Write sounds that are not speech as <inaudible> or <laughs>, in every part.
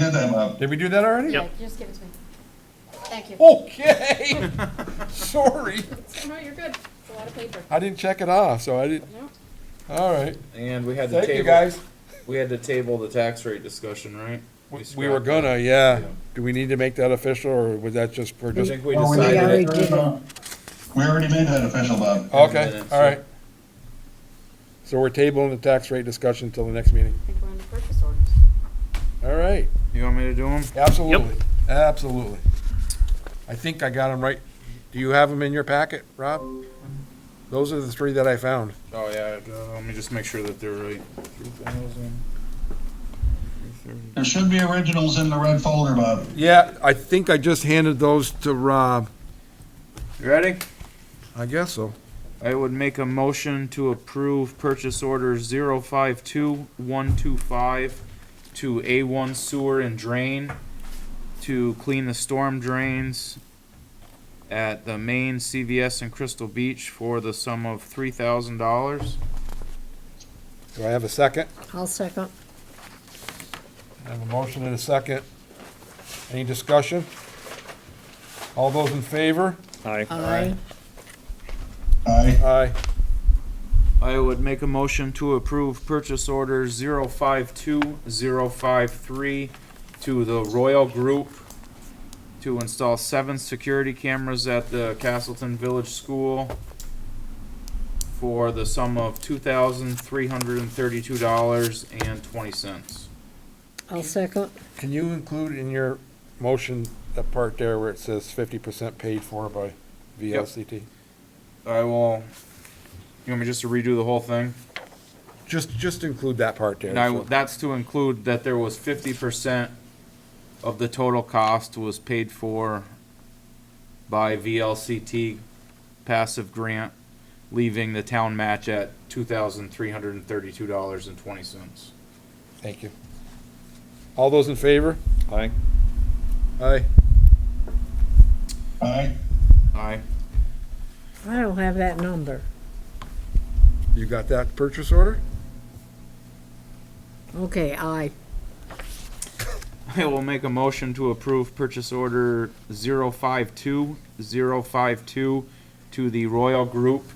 your time up. Did we do that already? Yep. Yeah, Just give it to me. Thank you. Oh. Okay. <laughs> Sorry. No, you're good. It's a lot of paper. I didn't check it off, so I didn't. No? All right. And we had to Thank table. you, guys. We had to table the tax rate discussion, right? We- We scrapped were it. gonna, yeah. Do we need to make that official, or was that just, we're I just, think we Oh, did decided that. it. We already made that official, Bob. okay, minutes, all right. So we're tabling the tax rate discussion until the next meeting. I think we're on the purchase orders. All right, You want me to do them? absolutely, absolutely. I think I got them right. Do you have them in your packet, Rob? Those are the three that I found. Oh, yeah, uh, let me just make sure that they're right. Three thousand. There should be originals in the red folder, Bob. Yeah, I think I just handed those to Rob. You ready? I guess so. I would make a motion to approve purchase order zero five two one two five to A one sewer and drain to clean the storm drains at the main CVS in Crystal Beach for the sum of three thousand dollars. Do I have a second? I'll second. I have a motion and a second. Any discussion? All those in favor? Aye. Aye. Aye. I would make a motion to approve purchase order zero five two zero five three to the Royal Group to install seven security cameras at the Castleton Village School for the sum of two thousand three hundred and thirty-two dollars and twenty cents. I'll second. Can you include in your motion that part there where it says fifty percent paid for by VLCT? I will, you want me just to redo the whole thing? Just, just include that part there. And I, so- that's to include that there was fifty percent of the total cost was paid for by VLCT passive grant, leaving the town match at two thousand three hundred and thirty-two dollars and twenty cents. Thank you. All those in favor? Aye. Aye. Aye. Aye. I don't have that number. You got that purchase order? Okay, aye. I will make a motion to approve purchase order zero five two zero five two to the Royal Group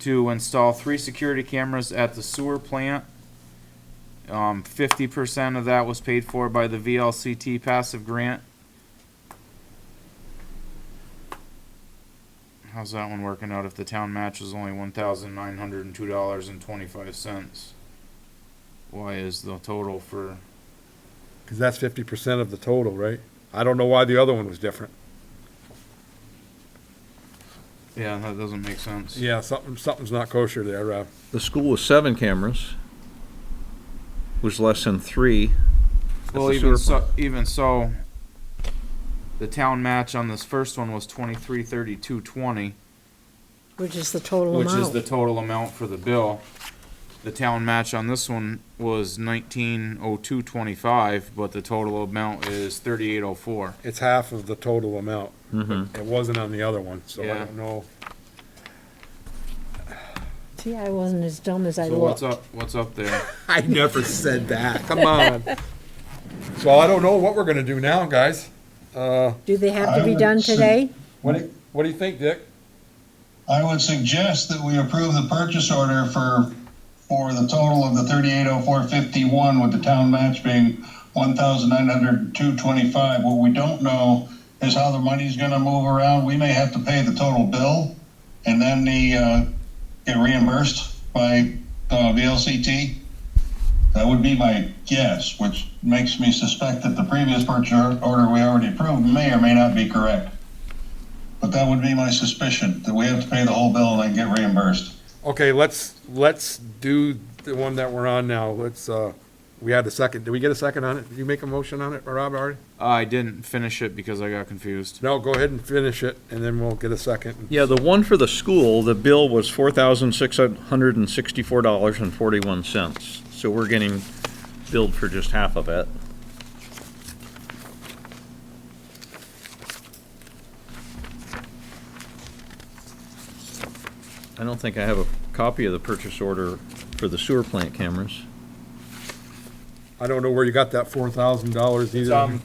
to install three security cameras at the sewer plant. Um, fifty percent of that was paid for by the VLCT passive grant. How's that one working out if the town match is only one thousand nine hundred and two dollars and twenty-five cents? Why is the total for? Because that's fifty percent of the total, right? I don't know why the other one was different. Yeah, that doesn't make sense. Yeah, something, something's not kosher there, Rob. The school was seven cameras, was less than three. at Well, the even sewer so, even so, the town match on this first one was twenty-three thirty-two twenty, Which is the total which is the amount. total amount for the bill. The town match on this one was nineteen oh two twenty-five, but the total amount is thirty-eight oh four. It's half of the total amount. Mhm. It wasn't on the other one, so I Yeah. don't know. See, I wasn't as dumb as I So what's looked. up, what's up there? <laughs> I never said that. Come <laughs> on. So I don't know what we're gonna do now, guys. Uh, Do they have to I be would done say- today? what do, what do you think, Dick? I would suggest that we approve the purchase order for, for the total of the thirty-eight oh four fifty-one with the town match being one thousand nine hundred two twenty-five. What we don't know is how the money's gonna move around. We may have to pay the total bill and then the, uh, get reimbursed by, uh, VLCT. That would be my guess, which makes me suspect that the previous purchase order we already approved may or may not be correct. But that would be my suspicion, that we have to pay the whole bill and then get reimbursed. Okay, let's, let's do the one that we're on now. Let's, uh, we had a second. Did we get a second on it? Did you make a motion on it, Rob, already? I didn't finish it because I got confused. No, go ahead and finish it and then we'll get a second. Yeah, the one for the school, the bill was four thousand six hundred and sixty-four dollars and forty-one cents. So we're getting billed for just half of it. I don't think I have a copy of the purchase order for the sewer plant cameras. I don't know where you got that four thousand dollars either. um,